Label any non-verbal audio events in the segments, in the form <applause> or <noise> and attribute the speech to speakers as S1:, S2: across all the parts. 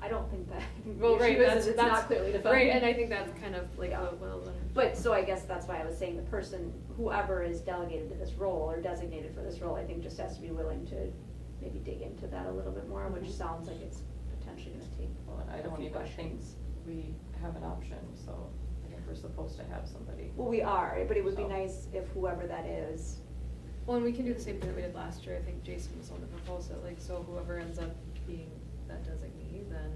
S1: I don't think that, <laughs> I think
S2: Well,
S1: the
S2: right,
S1: issue is
S2: that's-
S1: that it's
S2: that's-
S1: not clearly defined.
S2: Right, and I think that's kind of like,
S1: Yeah.
S2: the- well, whatever.
S1: But, so I guess that's why I was saying the person, whoever is delegated to this role or designated for this role, I think just has to be willing to maybe dig into that a little bit more, which
S2: Mm-hmm.
S3: Mhm.
S1: sounds like it's potentially gonna take
S3: Well, and I
S1: a
S3: don't
S1: few
S3: even think
S1: questions.
S3: we have an option, so I think we're supposed to have somebody.
S1: Well, we are, but it would be
S3: So.
S1: nice if whoever that is,
S2: Well, and we can do the same thing that we did last year, I think Jason was on the proposal, like, so whoever ends up being that designee, then,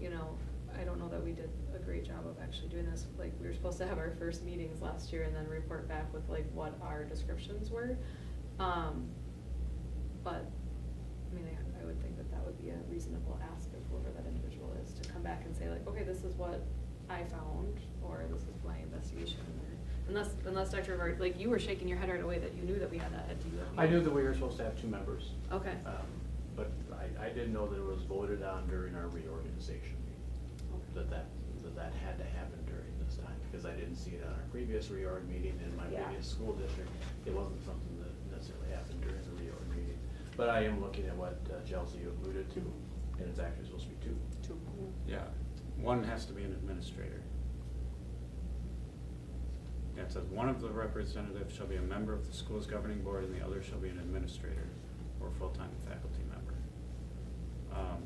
S2: you know, I don't know that we did a great job of actually doing this, like, we were supposed to have our first meetings last year and then report back with like what our descriptions were. Um, but, I mean, I, I would think that that would be a reasonable ask of whoever that individual is to come back and say like, okay, this is what I found, or this is my investigation, or, unless, unless Dr. Rivard, like, you were shaking your head right away that you knew that we had that at DU.
S4: I knew that we were supposed to have two members,
S2: Okay,
S4: um, but I, I didn't know that it was voted on during our reorganization meeting,
S2: okay,
S4: that that, that that had to happen during this time, because I didn't see it on our previous reorg meeting in my
S1: Yeah.
S4: previous school district. It wasn't something that necessarily happened during the reorg meeting, but I am looking at what uh, Chelsea alluded to, and it's actually supposed to be two.
S2: two.
S5: Yeah, one has to be an administrator. Yeah, it says, one of the representatives shall be a member of the school's governing board and the other shall be an administrator or full-time faculty member. Um,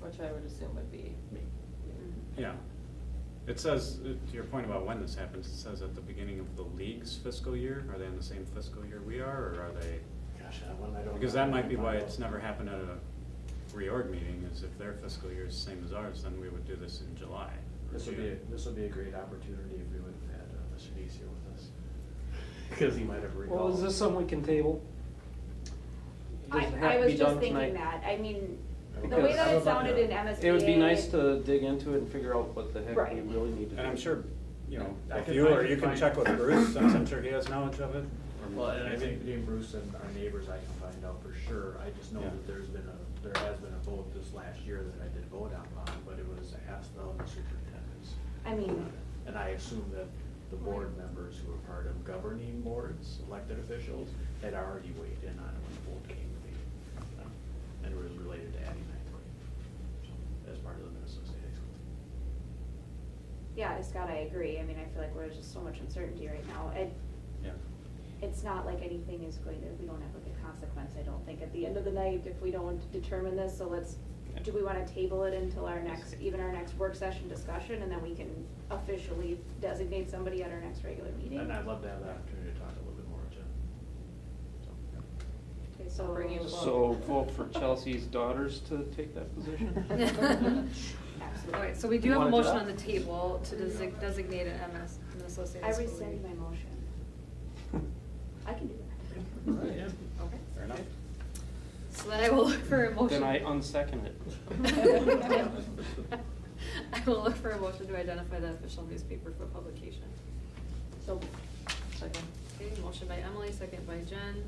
S3: Which I would assume would be.
S4: Me.
S2: Mm-hmm.
S5: Yeah, it says, uh, to your point about when this happens, it says at the beginning of the league's fiscal year, are they in the same fiscal year we are, or are they?
S4: Gosh, that one I don't.
S5: Because
S4: know.
S5: that might be why it's never happened at a reorg meeting, is if their fiscal year is the same as ours, then we would do this in July. or
S4: This would be,
S5: June.
S4: a- this would be a great opportunity if we would have had uh, Mr. Dees here with us, <laughs> because he might have recalled.
S6: Well, is this something we can table? Does
S1: I,
S6: it have
S1: I
S6: to be
S1: was
S6: done
S1: just thinking
S6: tonight?
S1: that, I mean, the way
S6: Because-
S1: that
S6: How
S1: it
S6: about
S1: sounded in
S4: that?
S1: MSBA.
S6: It would be nice to dig into it and figure out what the heck we
S1: Right.
S6: really need to do.
S5: And I'm sure, you know,
S4: I
S5: if
S4: can-
S5: you
S4: I
S5: or
S4: can
S5: you can
S4: find-
S5: check with Bruce, since I'm sure he has knowledge of it. or
S4: Well, and I think
S5: maybe-
S4: between Bruce and our neighbors, I can find out for sure. I just know
S5: Yeah.
S4: that there's been a, there has been a vote this last year that I did vote on, um, but it was asked of the superintendents.
S1: I mean-
S4: And I assume that the board members who are part of governing boards, elected officials, had already weighed in on it when the vote came to be. um, And it was related to adding that grade, so, as part of the Minnesota State High School.
S1: Yeah, Scott, I agree, I mean, I feel like there's just so much uncertainty right now, it,
S5: Yeah.
S1: it's not like anything is going to, we don't have like a consequence, I don't think, at the end of the night, if we don't determine this, so let's, do we wanna table it until our next, even our next work session discussion, and then we can officially designate somebody at our next regular meeting?
S4: And I'd love to have the opportunity to talk a little bit more with Jen.
S1: Okay, so.
S3: Bring you both.
S6: So vote for Chelsea's daughters to take that position?
S2: <laughs>
S1: <laughs> Absolutely.
S2: All right, so we do
S6: You
S2: have a
S6: wanna do
S2: motion
S6: that?
S2: on the table to desig- designate an MS, an associated
S1: I
S2: school
S1: rescind my
S2: league.
S1: motion, I can do that.
S4: Right, yeah.
S2: Okay,
S5: Fair enough.
S2: so then I will look for a motion.
S6: Then I unsecond it.
S2: I will look for a motion to identify the official newspaper for publication.
S1: So,
S3: Second.
S2: Okay, motion by Emily, second by Jen.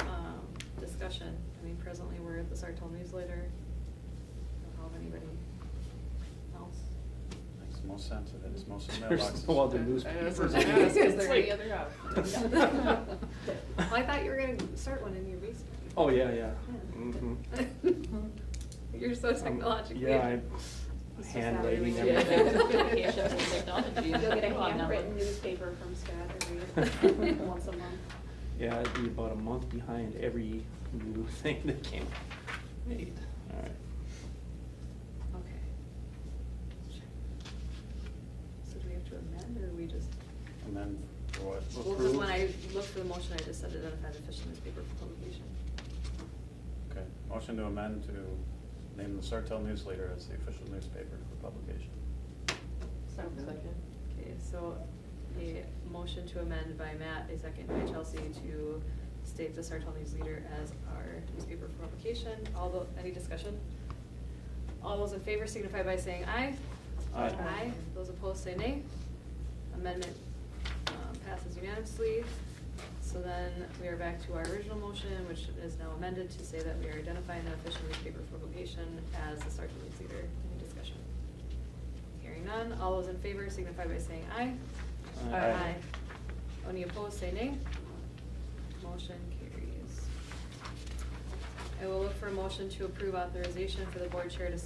S2: Um, discussion, I mean, presently we're at the Sartell newsletter. Don't know if anybody else.
S5: Makes the most sense, it is most
S6: <laughs> There's
S5: mailboxes.
S6: no other
S2: I was
S6: <laughs> newspapers.
S2: gonna ask, is there any
S6: It's
S2: other
S6: like- <laughs>
S2: Well, I thought you were gonna start one in your basement.
S6: Oh, yeah, yeah. Mhm.
S2: <laughs> You're so technologically.
S6: Um, Yeah, I
S1: <laughs> It's just
S6: hand
S1: not
S6: waving
S1: really- <laughs>
S6: everything.
S3: Yeah.
S6: <laughs>
S3: Technology.
S1: you'll get a
S3: Come on now.
S1: handwritten newspaper from <laughs> Scott every, once a month.
S6: Yeah, I'd be about a month behind every new <laughs> thing that came made. All right.
S2: Okay. So do we have to amend, or we just?
S5: And then for what?
S2: Well, 'cause when I looked for the motion, I just said identify the official newspaper for publication.
S5: Okay, motion to amend to name the Sartell newsletter as the official newspaper for publication.
S3: Second.
S2: Okay, so a motion to amend by Matt, a second by Chelsea to state the Sartell News Leader as our newspaper for publication. All tho, any discussion? All those in favor signify by saying aye.
S6: Aye.
S2: Aye. Those opposed say nay. Amendment um, passes unanimously. So then we are back to our original motion, which is now amended to say that we are identifying the official newspaper for publication as the Sartell News Leader. Any discussion? Hearing none, all those in favor signify by saying aye.
S6: Aye. Aye.
S2: Any opposed, say nay. Motion carries. I will look for a motion to approve authorization for the board chair to